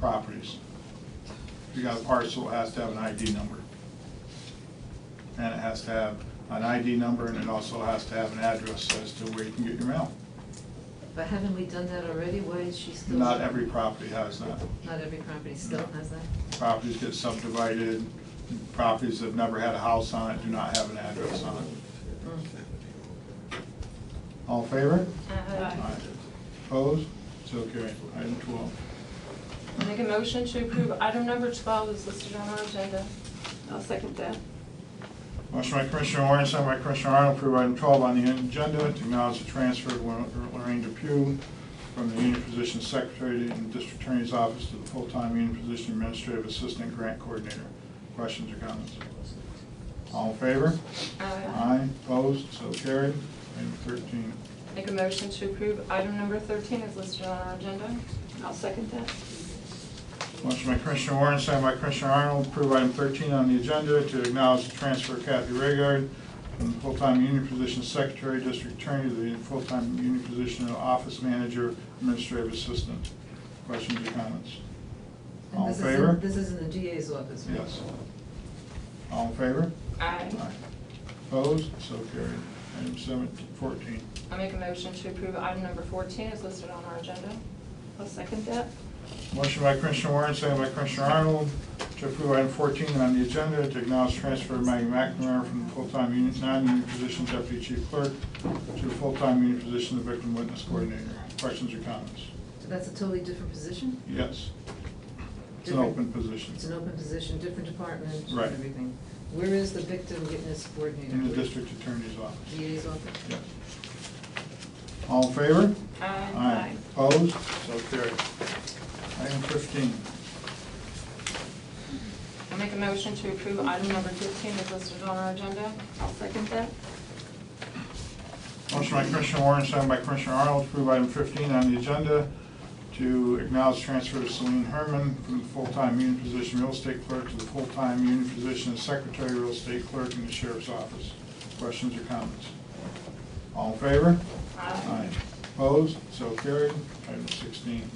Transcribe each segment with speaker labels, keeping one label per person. Speaker 1: properties. If you got a parcel, it has to have an ID number. And it has to have an ID number, and it also has to have an address as to where you can get your mail.
Speaker 2: But haven't we done that already? Why is she still?
Speaker 1: Not every property has that.
Speaker 2: Not every property still has that?
Speaker 1: Properties get subdivided, properties that never had a house on it do not have an address on it.
Speaker 2: Mm.
Speaker 1: All in favor?
Speaker 3: Aye.
Speaker 1: Aye. Opposed? So carried. Item twelve.
Speaker 3: Make a motion to approve item number 12 is listed on our agenda. I'll second that.
Speaker 1: Motion by Commissioner Warren, second by Commissioner Arnold, approve item 12 on the agenda, to acknowledge the transfer of Lorraine Depew from the union position secretary in the district attorney's office to the full-time union position administrative assistant grant coordinator. Questions or comments? All in favor? Aye, opposed, so carried. Item 13.
Speaker 3: Make a motion to approve item number 13 is listed on our agenda. I'll second that.
Speaker 1: Motion by Commissioner Warren, second by Commissioner Arnold, approve item 13 on the agenda to acknowledge the transfer of Kathy Raygard from the full-time union position secretary, district attorney, to the full-time union position of office manager, administrative assistant. Questions or comments?
Speaker 2: And
Speaker 1: All in
Speaker 2: this is
Speaker 1: favor?
Speaker 2: This is in the DA's office, right?
Speaker 1: Yes. All in favor?
Speaker 3: Aye.
Speaker 1: Opposed? So carried. Item 17, 14.
Speaker 3: I make a motion to approve item number 14 is listed on our agenda. I'll second that.
Speaker 1: Motion by Commissioner Warren, second by Commissioner Arnold, to approve item 14 on the agenda, to acknowledge transfer of Maggie McNamara from the full-time union, non-union position deputy chief clerk to the full-time union position of victim witness coordinator. Questions or comments?
Speaker 2: So that's a totally different position?
Speaker 1: Yes. It's an open position
Speaker 2: It's an open position, different department,
Speaker 1: Right.
Speaker 2: and everything. Where is the victim witness coordinator?
Speaker 1: in the district attorney's office.
Speaker 2: DA's office?
Speaker 1: Yes. All in favor?
Speaker 3: Aye.
Speaker 1: Opposed? So carried. Item 15.
Speaker 3: I make a motion to approve item number 15 is listed on our agenda. I'll second that.
Speaker 1: Motion by Commissioner Warren, second by Commissioner Arnold, to approve item 15 on the agenda to acknowledge transfer of Celine Herman from the full-time union position real estate clerk to the full-time union position as secretary real estate clerk in the sheriff's office. Questions or comments? All in favor? Aye. Opposed? So carried. Item 16.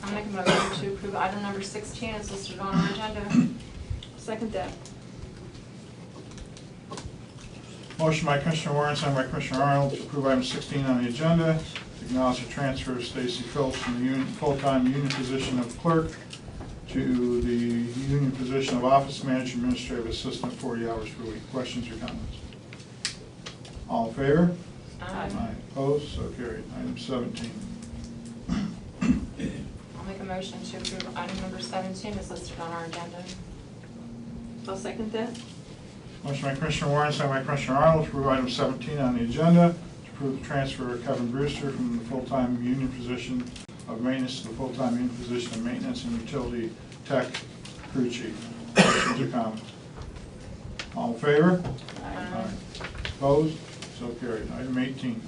Speaker 3: I make a motion to approve item number 16 is listed on our agenda. Second that.
Speaker 1: Motion by Commissioner Warren, second by Commissioner Arnold, to approve item 16 on the agenda, to acknowledge the transfer of Stacy Phillips from the union- full-time union position of clerk to the union position of office manager administrative assistant, 40 hours per week. Questions or comments? All in favor? Aye. Opposed? So carried. Item 17.
Speaker 3: I'll make a motion to approve item number 17 is listed on our agenda. I'll second that.
Speaker 1: Motion by Commissioner Warren, second by Commissioner Arnold, to approve item 17 on the agenda, to approve the transfer of Kevin Brewster from the full-time union position of maintenance to the full-time union position of maintenance and utility tech crew chief. Questions or comments? All in favor?
Speaker 3: Aye.
Speaker 1: Opposed? So carried. Item 18.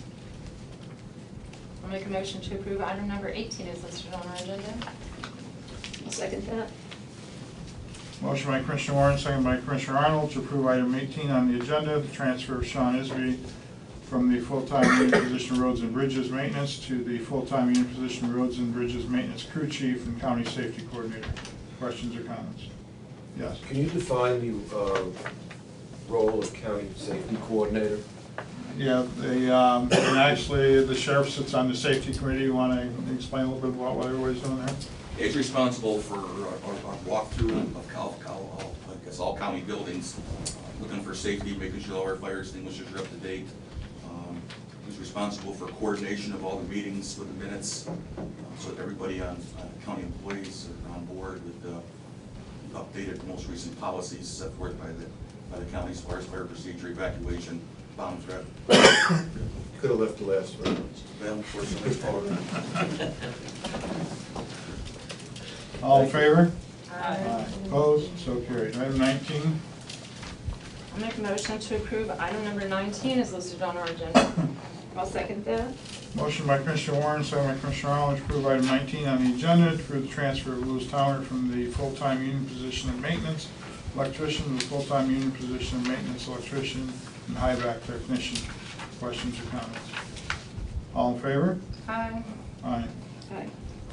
Speaker 3: I'll make a motion to approve item number 18 is listed on our agenda. I'll second that.
Speaker 1: Motion by Commissioner Warren, second by Commissioner Arnold, to approve item 18 on the agenda, the transfer of Sean Isby from the full-time union position Roads and Bridges Maintenance to the full-time union position Roads and Bridges Maintenance Crew Chief and County Safety Coordinator. Questions or comments? Yes.
Speaker 4: Can you define the uh, role of county safety coordinator?
Speaker 1: Yeah, the, um, and actually, the sheriff sits on the safety committee. You want to explain a little bit about what everybody's doing there?
Speaker 5: It's responsible for our, our walkthrough of Cal, Cal, I guess all county buildings, uh, looking for safety, making sure all our fire extinguishers are up to date. Um, He's responsible for coordination of all the meetings with the minutes, uh, so that everybody on, on county employees are on board with the updated, most recent policies set forth by the, by the county as far as fire procedure, evacuation, bomb threat.
Speaker 4: Could have left the last round.
Speaker 5: Well, unfortunately, it's all-
Speaker 1: All in favor?
Speaker 3: Aye.
Speaker 1: Opposed? So carried. Item 19.
Speaker 3: I'll make a motion to approve item number 19 is listed on our agenda. I'll second that.
Speaker 1: Motion by Commissioner Warren, second by Commissioner Arnold, to approve item 19 on the agenda, to approve the transfer of Louis Towner from the full-time union position of maintenance electrician to the full-time union position of maintenance electrician and high-back technician. Questions or comments? All in favor?
Speaker 3: Aye.
Speaker 1: Aye.
Speaker 3: Aye.